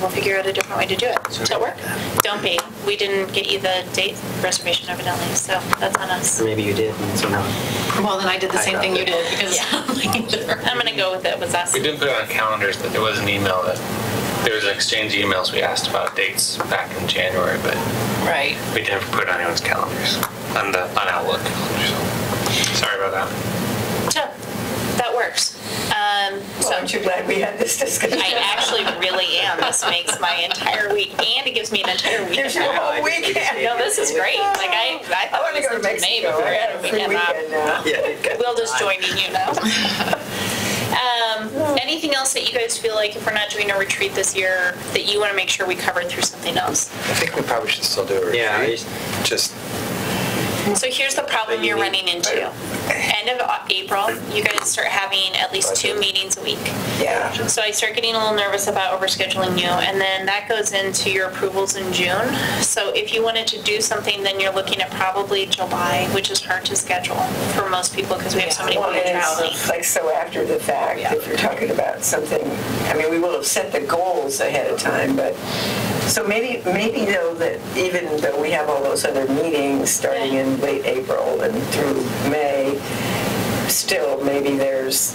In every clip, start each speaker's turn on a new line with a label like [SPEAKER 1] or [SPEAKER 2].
[SPEAKER 1] We'll figure out a different way to do it. Does that work? Don't be. We didn't get you the date reservation evidently, so that's on us.
[SPEAKER 2] Or Maybe you did, and so now.
[SPEAKER 3] Well, then I did the
[SPEAKER 2] I
[SPEAKER 3] same
[SPEAKER 2] got
[SPEAKER 3] thing you
[SPEAKER 2] it.
[SPEAKER 3] did because
[SPEAKER 1] I'm going to go with it was us.
[SPEAKER 4] We didn't put it on calendars, but there was an email that, there was an exchange of emails we asked about dates back in January, but
[SPEAKER 3] right.
[SPEAKER 4] we didn't put it on anyone's calendars, on the, on Outlook calendars. Sorry about that.
[SPEAKER 1] So, that works. Um,
[SPEAKER 5] So
[SPEAKER 1] So
[SPEAKER 5] aren't you glad we had this discussion?
[SPEAKER 1] I actually really am. This makes my entire week, and it gives me an entire weekend.
[SPEAKER 5] There's your
[SPEAKER 1] off.
[SPEAKER 5] whole weekend.
[SPEAKER 1] No, this is great. Like, I, I
[SPEAKER 5] I
[SPEAKER 1] thought
[SPEAKER 5] want to
[SPEAKER 1] it
[SPEAKER 5] go
[SPEAKER 1] was
[SPEAKER 5] to
[SPEAKER 1] in May
[SPEAKER 5] Mexico.
[SPEAKER 1] before
[SPEAKER 5] I
[SPEAKER 1] I had
[SPEAKER 5] had
[SPEAKER 1] a
[SPEAKER 5] a free
[SPEAKER 1] weekend off.
[SPEAKER 5] weekend now.
[SPEAKER 2] Yeah.
[SPEAKER 1] We'll just join you, you know. Um, Anything else that you guys feel like if we're not doing a retreat this year, that you want to make sure we cover through something else?
[SPEAKER 6] I think we probably should still do a retreat.
[SPEAKER 2] Yeah, I just-
[SPEAKER 6] Just,
[SPEAKER 1] So here's the problem you're running into. End of Au- April, you guys start having at least two meetings a week.
[SPEAKER 5] Yeah.
[SPEAKER 1] So I start getting a little nervous about overscheduling you, and then that goes into your approvals in June. So if you wanted to do something, then you're looking at probably July, which is hard to schedule for most people because we have so many
[SPEAKER 5] Well,
[SPEAKER 1] people traveling.
[SPEAKER 5] it's Like, so after the fact, if you're talking about something, I mean, we will have set the goals ahead of time, but, so maybe, maybe though, that even though we have all those other meetings starting in late April and through May, still, maybe there's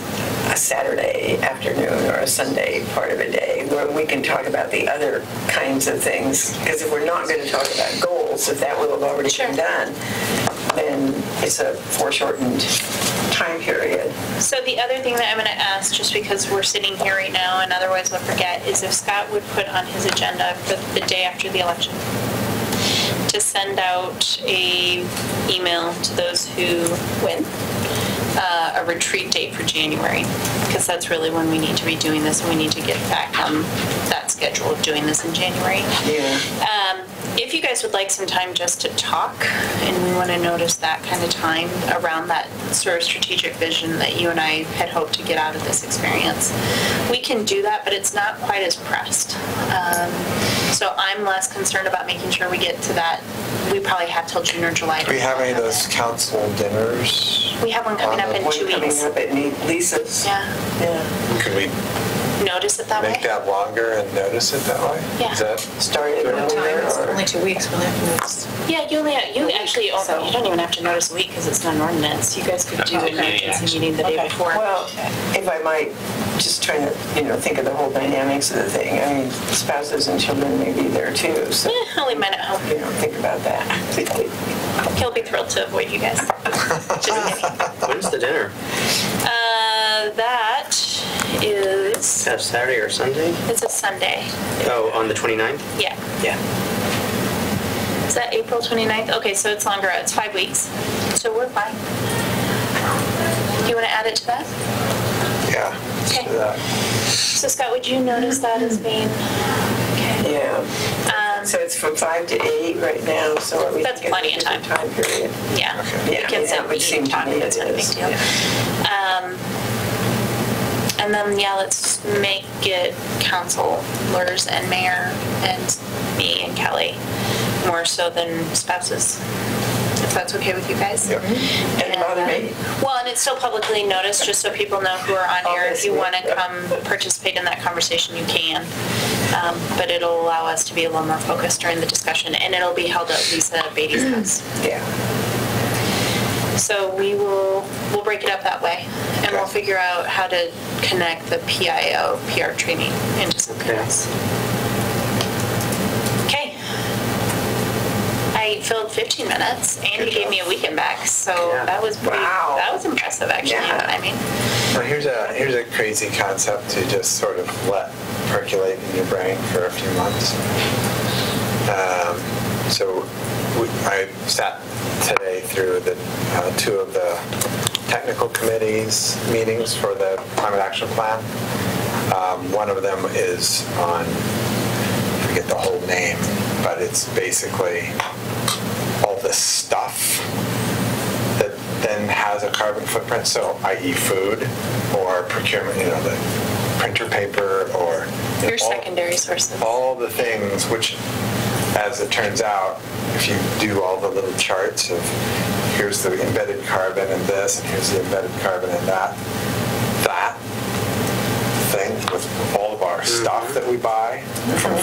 [SPEAKER 5] a Saturday afternoon or a Sunday part of a day where we can talk about the other kinds of things. Because if we're not going to talk about goals, if that will have already been done, then it's a foreshortened time period.
[SPEAKER 1] So the other thing that I'm going to ask, just because we're sitting here right now and otherwise I'll forget, is if Scott would put on his agenda for the day after the election to send out a email to those who win, uh, a retreat date for January, because that's really when we need to be doing this and we need to get back on that schedule of doing this in January.
[SPEAKER 5] Yeah.
[SPEAKER 1] Um, If you guys would like some time just to talk, and we want to notice that kind of time around that sort of strategic vision that you and I had hoped to get out of this experience, we can do that, but it's not quite as pressed. Um, So I'm less concerned about making sure we get to that. We probably have till June or July. to
[SPEAKER 6] do we have any of
[SPEAKER 1] that.
[SPEAKER 6] those council dinners? Um,
[SPEAKER 1] We have one coming up in
[SPEAKER 6] on the-
[SPEAKER 1] two
[SPEAKER 5] One coming
[SPEAKER 1] weeks.
[SPEAKER 5] up at Ne- Lisa's.
[SPEAKER 1] Yeah,
[SPEAKER 5] Yeah.
[SPEAKER 6] Could we
[SPEAKER 1] notice it that way.
[SPEAKER 6] make that longer and notice it that way?
[SPEAKER 1] Yeah.
[SPEAKER 6] Is that,
[SPEAKER 5] Start at
[SPEAKER 3] What time? It's
[SPEAKER 5] nowhere
[SPEAKER 3] only
[SPEAKER 5] or
[SPEAKER 3] two weeks. We'll have to notice.
[SPEAKER 1] Yeah, you only, you actually, oh,
[SPEAKER 3] so-
[SPEAKER 1] you don't even have to notice a week because it's not an ordinance. You guys could do an
[SPEAKER 4] Okay, yeah.
[SPEAKER 1] emergency meeting the day
[SPEAKER 3] Okay.
[SPEAKER 1] before.
[SPEAKER 5] Well, if I might, just trying to, you know, think of the whole dynamics of the thing. I mean, spouses and children may be there too, so,
[SPEAKER 1] Eh, I'll leave mine at home.
[SPEAKER 5] you know, think about that.
[SPEAKER 1] He'll be thrilled to avoid you guys. Just kidding.
[SPEAKER 2] When's the dinner?
[SPEAKER 1] Uh, that is,
[SPEAKER 2] That Saturday or Sunday?
[SPEAKER 1] it's a Sunday.
[SPEAKER 2] Oh, on the 29th?
[SPEAKER 1] Yeah.
[SPEAKER 2] Yeah.
[SPEAKER 1] Is that April 29th? Okay, so it's longer. It's five weeks. So we're fine. Do you want to add it to that?
[SPEAKER 6] yeah. let's do
[SPEAKER 1] Okay.
[SPEAKER 6] that.
[SPEAKER 1] So Scott, would you notice that as being? Okay.
[SPEAKER 5] Yeah,
[SPEAKER 1] Um,
[SPEAKER 5] so it's from five to eight right now, so are we?
[SPEAKER 1] That's
[SPEAKER 5] thinking
[SPEAKER 1] plenty of
[SPEAKER 5] different Time period.
[SPEAKER 1] Yeah.
[SPEAKER 6] Okay.
[SPEAKER 1] We
[SPEAKER 5] Yeah,
[SPEAKER 1] can
[SPEAKER 5] yeah,
[SPEAKER 1] set
[SPEAKER 5] it would
[SPEAKER 1] meeting
[SPEAKER 5] seem to
[SPEAKER 1] time.
[SPEAKER 5] me
[SPEAKER 1] It's
[SPEAKER 5] it
[SPEAKER 1] not a big
[SPEAKER 5] is.
[SPEAKER 1] deal. Um, And then, yeah, let's make it councilors and mayor and me and Kelly more so than spouses, if that's okay with you guys. uh,
[SPEAKER 6] Yeah.
[SPEAKER 5] Doesn't bother me.
[SPEAKER 1] Well, and it's still publicly noticed, just so people know who are on here. If you want to come participate in that conversation, you can. Um, But it'll allow us to be a little more focused during the discussion, and it'll be held at Lisa Beatty's house.
[SPEAKER 5] Yeah,
[SPEAKER 1] So we will, we'll break it up that way, and we'll
[SPEAKER 6] Okay.
[SPEAKER 1] figure out how to connect the PIO PR training into something
[SPEAKER 2] Okay.
[SPEAKER 1] else. Okay. I filled 15 minutes, and you
[SPEAKER 6] Good
[SPEAKER 1] gave
[SPEAKER 6] job.
[SPEAKER 1] me a weekend back, so
[SPEAKER 2] Yeah.
[SPEAKER 1] that was pretty,
[SPEAKER 5] Wow.
[SPEAKER 1] that was impressive, actually,
[SPEAKER 5] Yeah.
[SPEAKER 1] I mean.
[SPEAKER 6] Well, here's a, here's a crazy concept to just sort of let percolate in your brain for a few months. Um, So we- I sat today through the, uh, two of the technical committees meetings for the climate action plan. Um, One of them is on, I forget the whole name, but it's basically all this stuff that then has a carbon footprint, so i.e. food or procurement, you know, the printer paper or. you know,
[SPEAKER 1] Your
[SPEAKER 6] all-
[SPEAKER 1] secondary sources.
[SPEAKER 6] all the things which as it turns out if you do all the little charts of here's the embedded carbon in this and here's the embedded carbon in that that thing with all of our stuff that we buy from